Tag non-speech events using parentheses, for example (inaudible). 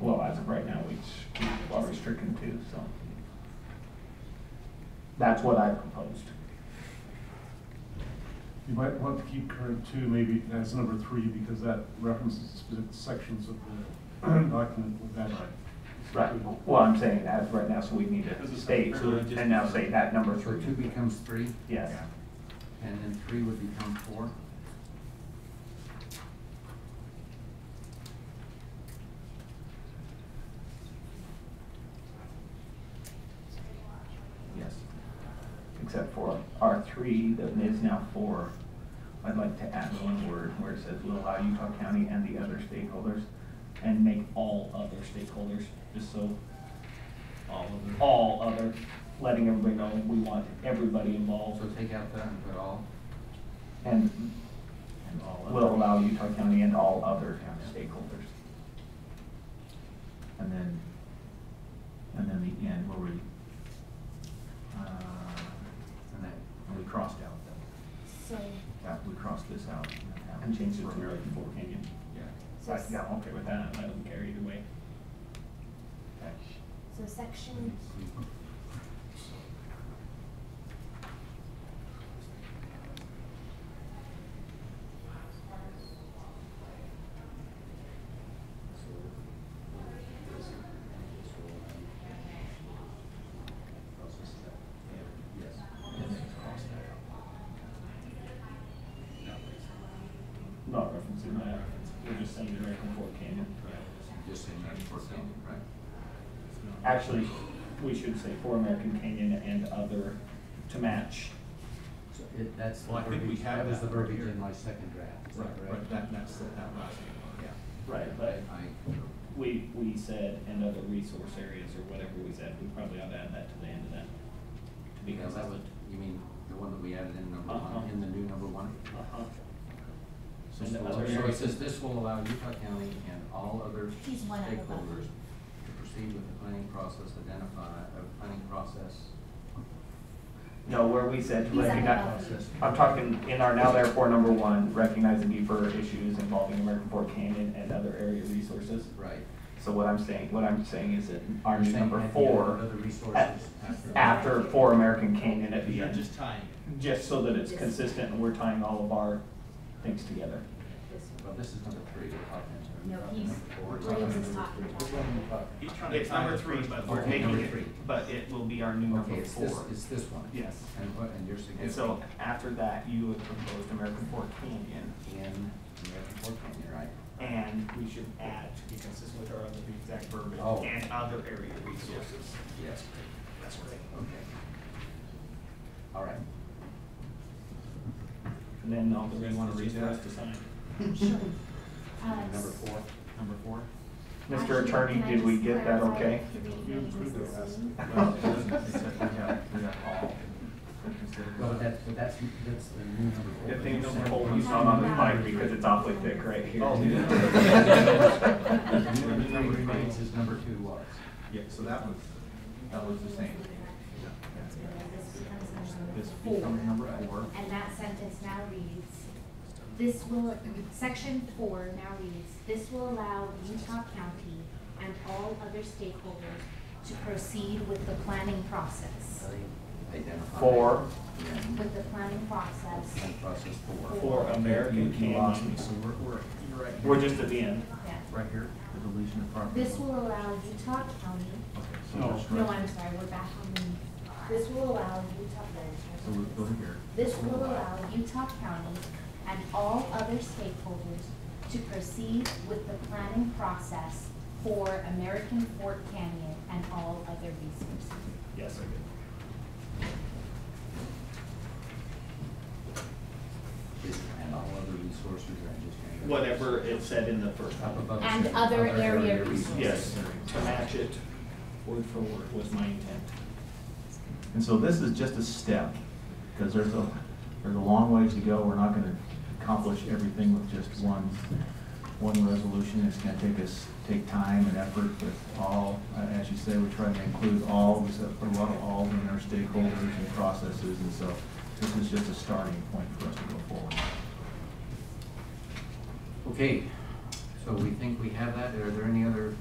as of right now, we are restricted to, so. That's what I proposed. You might want to keep current two, maybe as number three, because that references specific sections of the (clears throat) document with that. Right, well, I'm saying as of right now, so we need This to is state, so- pretty much and now say that number So three. two becomes three, Yes, and then three would become four. yes. Except for R three, that is now four. I'd like to add one word where it says will allow Utah County and the other stakeholders, and make all other stakeholders, just so all of them. all other, letting everybody know we want everybody Also involved take out that and put all. and And all other. will allow Utah County and all other town stakeholders. And then, and then the end where we, uh, And that, and we crossed out that, So, that, we crossed this out. and that And change it to Road. Road Fork Canyon. yeah. so, Right, s- yeah, I'm okay with that, I don't care either way. Okay. so section, And then crossed that Not referencing that, we're just saying American Fork Canyon. Just in that four thing, right? Actually, we should say for American Canyon and other to match. So it, that's the Well, I think we verbiage, have that was the that right verbiage here. in my second draft, is that Right, right, correct? that, that's, the- that last one, yeah. Right. I, But we, we said and other resource areas or whatever we said, we probably ought to add that to the end of that. To be because that was, consistent. you mean, the one that we added in number Uh-huh. one, in the new number one? Uh-huh. So And so- other so it areas. says this will allow Utah County and all other He's one out of eleven. stakeholders to proceed with the planning process identify, uh, planning process. No, where we said to He's at recognize, the bottom. I'm talking in our now therefore number one, recognize the need for issues involving American Fork Canyon and other area resources. Right. So what I'm saying, what I'm saying is that our You're new saying number at the end, four, Other resources after. after for American Canyon at the You're end, just tying it. just so that it's consistent and we're tying all of our things together. this one. Well, this is number three, we're talking. No, we're talking he's, number four, we're talking Williams is number talking three. about. Which one are we talking? He's trying to tie the first one. we're Okay, making number it- three. but it will be our new Okay, it's this, it's this one. Yes. And what, and your And suggestion so after that, you would propose American Fork Canyon. in American Fork Canyon, right? And we should add, to be consistent with our other exact verbiage, Oh. and other area resources. Yes. That's right. Okay. All right. And then all the Do rest you wanna is read just for us that? to sign. Sure. Uh, Number four, number four? Mr. actually, Attorney, can I did we just get that clarify okay? the three You approved pages the this last (laughs) week? Well, it doesn't, it said we got, we got all. Instead of- Well, but that's, but that's, that's the new number four. The but thing you number said- four, you you said saw on the number slide three. because it's awfully thick right here. (laughs) Oh, The yeah. new number three remains as number two was. Yeah, so that was, that was the same. This becomes number This four. becomes number four. And that sentence now reads, this will, section four now reads, this will allow Utah County and all other stakeholders to proceed with the planning process. Identify. Four. And With the planning process, and process four. For American You lost me, Canyon. so we're, we're, you're right here. We're just at the end. yeah. Right here, the deletion of property. This will allow Utah County, Okay, so No. that's no, right. I'm sorry, we're back on the, this will allow Utah, So we'll go here. This will allow Utah County and all other stakeholders to proceed with the planning process for American Fort Canyon and all other resources. Yes, I did. Is- And all other resources are just. gonna go- Whatever it said in the first Up one. above. it And says other area resources. Yes, to match it word for word was my intent. And so this is just a step, because there's a, there's a long ways to go. We're not gonna accomplish everything with just one, one resolution. It's gonna take us, take time and effort with all, uh, as you say, we try to include all, we said, put a lot of all in our stakeholders and processes, and so this is just a starting point for us to go forward. Okay, so we think we have that. Are there any other